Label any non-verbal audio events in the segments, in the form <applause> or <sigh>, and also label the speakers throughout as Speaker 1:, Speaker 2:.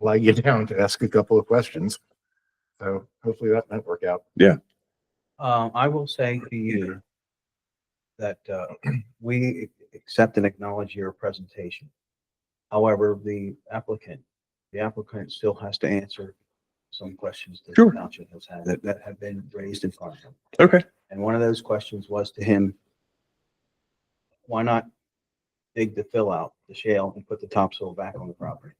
Speaker 1: allow you <laughs> down to ask a couple of questions. So hopefully that might work out.
Speaker 2: Um, I will say to you that, uh, <clears throat> we accept and acknowledge your presentation. However, the applicant, the applicant still has to answer some questions that the
Speaker 3: Sure.
Speaker 2: township has had, that, that have been raised in front of him.
Speaker 3: Okay.
Speaker 2: And one of those questions was to him, why not dig the fill out, the shale, and put the topsoil back on the property?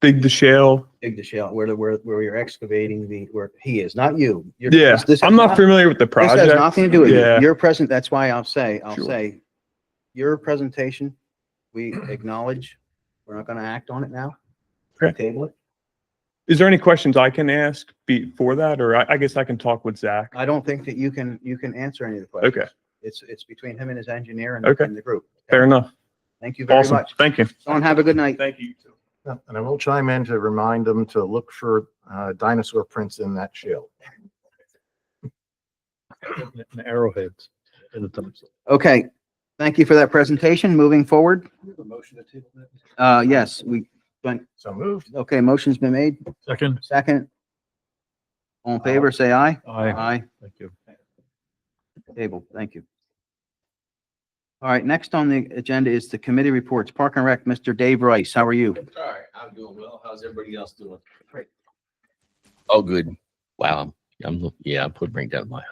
Speaker 3: Dig the shale.
Speaker 2: Dig the shale, where, the- where, where you're excavating the, where he is, not you. You're-
Speaker 3: Yeah,
Speaker 2: this- this
Speaker 3: I'm
Speaker 2: is
Speaker 3: not familiar with the
Speaker 2: This has
Speaker 3: project.
Speaker 2: nothing to do with
Speaker 3: Yeah.
Speaker 2: you. Your present, that's why I'll say, I'll
Speaker 3: Sure.
Speaker 2: say, your presentation, we acknowledge, we're not gonna act on it now.
Speaker 3: Okay.
Speaker 2: Table it.
Speaker 3: Is there any questions I can ask before that, or I, I guess I can talk with Zach?
Speaker 2: I don't think that you can, you can answer any of the questions.
Speaker 3: Okay.
Speaker 2: It's, it's between him and his engineer and,
Speaker 3: Okay.
Speaker 2: and the group.
Speaker 3: Fair enough.
Speaker 2: Thank you very
Speaker 3: Awesome.
Speaker 2: much.
Speaker 3: Thank you.
Speaker 2: Don, have a good night.
Speaker 3: Thank you.
Speaker 1: Yeah, And I will chime in to remind them to look for uh, dinosaur prints in that shell.
Speaker 4: and arrowheads in the thumbs.
Speaker 2: Okay, thank you for that presentation. Moving forward, uh, yes, we,
Speaker 1: So moved.
Speaker 2: okay, motion's been made.
Speaker 4: Second,
Speaker 2: Second. All in favor, say aye.
Speaker 4: aye,
Speaker 2: Aye.
Speaker 4: thank you.
Speaker 2: Table, thank you. All right, next on the agenda is the committee reports. Park and Rec, Mr. Dave Rice, how are you?
Speaker 5: All right, I'm doing well. How's everybody else doing? Great. Oh, good. Wow. I'm, yeah, I'm putting bring down my.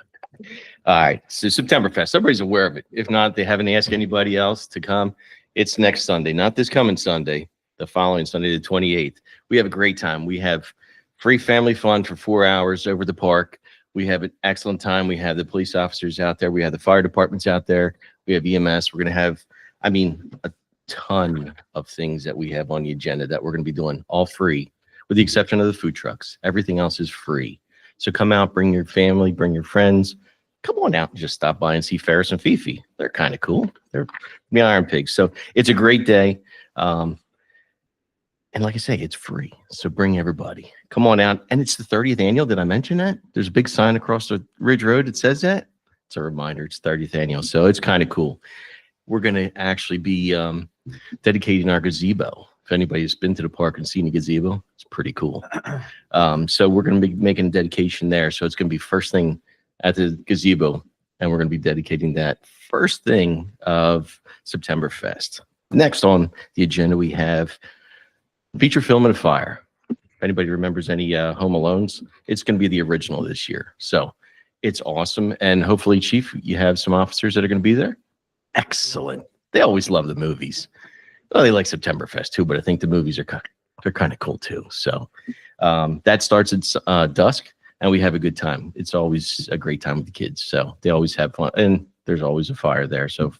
Speaker 5: All right, so Septemberfest, everybody's aware of it. If not, they haven't asked anybody else to come. It's next Sunday, not this coming Sunday, the following Sunday, the twenty-eighth. We have a great time. We have free family fun for four hours over the park. We have an excellent time. We have the police officers out there. We have the fire departments out there. We have EMS. We're gonna have, I mean, a ton of things that we have on the agenda that we're going to be doing all free with the exception of the food trucks everything else is free so come out bring your family bring your friends come on out and just stop by and see ferris and fifi they're kind of cool they're the iron pigs so it's a great day um, and like i say it's free so bring everybody come on out and it's the 30th annual did i mention that there's a big sign across the ridge road that says that it's a reminder it's 30th annual so it's kind of cool we're going to actually be um, dedicating our gazebo. If anybody's been to the park and seen a gazebo, it's pretty cool. <clears throat> Um, so we're going to be making a dedication there. So it's going to be first thing at the gazebo, and we're going to be dedicating that first thing of September Fest. Next on the agenda, we have feature film and a fire. If anybody remembers any uh, Home Alones, it's going to be the original this year. So it's awesome, and hopefully, Chief, you have some officers that are going to be there. Excellent. They always love the movies well, they like Septemberfest too, but I think the movies are kind they're kind of cool too. So um, that starts at s- uh, dusk, and we have a good time. It's always a great time with the kids, so they always have fun, and there's always a fire there. So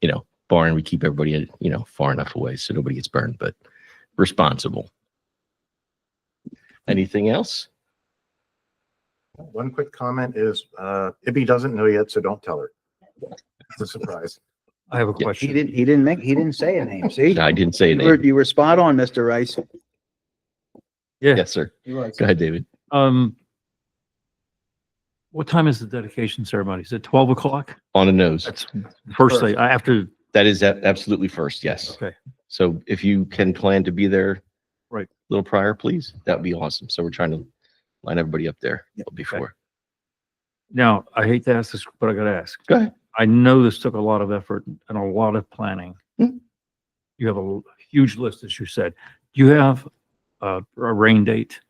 Speaker 5: you know, barn we keep everybody you know far enough away so nobody gets burned, but responsible. Anything else?
Speaker 1: One quick comment is uh, Ibby doesn't know yet, so don't tell her. It's a surprise.
Speaker 4: I have a
Speaker 5: Yeah.
Speaker 2: He
Speaker 4: question.
Speaker 2: didn't, he didn't make, he didn't say a name, <laughs> see?
Speaker 5: I didn't say
Speaker 2: You were,
Speaker 5: anything.
Speaker 2: you were spot on, Mr. Rice.
Speaker 4: Yeah,
Speaker 5: Yes, sir. Go ahead, David.
Speaker 4: um. What time is the dedication ceremony? Is it twelve o'clock?
Speaker 5: On the nose.
Speaker 4: That's first thing, I- after,
Speaker 5: That is a- absolutely first. Yes.
Speaker 4: okay,
Speaker 5: So if you can plan to be there.
Speaker 4: Right.
Speaker 5: a Little prior, please. That'd be awesome. So we're trying to line everybody up there before.
Speaker 4: now, I hate to ask this, but I gotta ask.
Speaker 5: Go ahead.
Speaker 4: I know this took a lot of effort and a lot of planning.
Speaker 5: Hmm.
Speaker 4: You have a l- huge list, as you said. Do you have a, a rain date?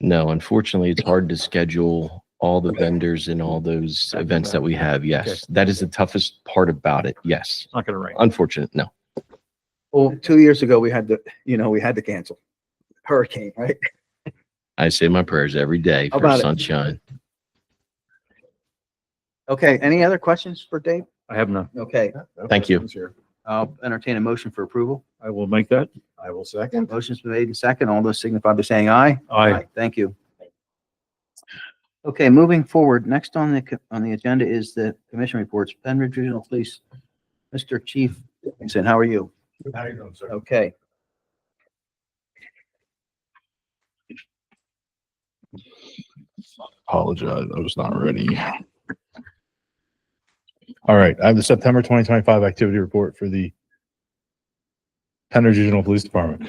Speaker 5: No, unfortunately, it's hard to schedule all the vendors and all those
Speaker 4: Back to
Speaker 5: events that we have. Yes, that is the toughest part about it. Yes.
Speaker 4: It's not gonna
Speaker 5: Uh,
Speaker 4: rain.
Speaker 5: Unfortunate, no.
Speaker 2: Well, two years ago, we had to, you know, we had to cancel. Hurricane, right?
Speaker 5: I say my prayers every day
Speaker 2: How
Speaker 5: for
Speaker 2: about it?
Speaker 5: sunshine.
Speaker 2: Okay, any other questions for Dave?
Speaker 4: I have none.
Speaker 2: Okay,
Speaker 1: Yeah, no
Speaker 5: Thank you.
Speaker 1: questions here.
Speaker 2: I'll entertain a motion for approval.
Speaker 4: I will make that.
Speaker 1: I will second.
Speaker 2: Motion's been made and second. All those signify by saying aye.
Speaker 4: I,
Speaker 2: Thank you. Okay, moving forward, next on the, co- on the agenda is the commission reports, Penn Ridge Regional Police. Mr. Chief Dickinson, how are you?
Speaker 1: How you doing, sir?
Speaker 2: Okay.
Speaker 6: apologize. I was not ready. All right, I have the September twenty twenty-five activity report for the Penn Regional Police Department.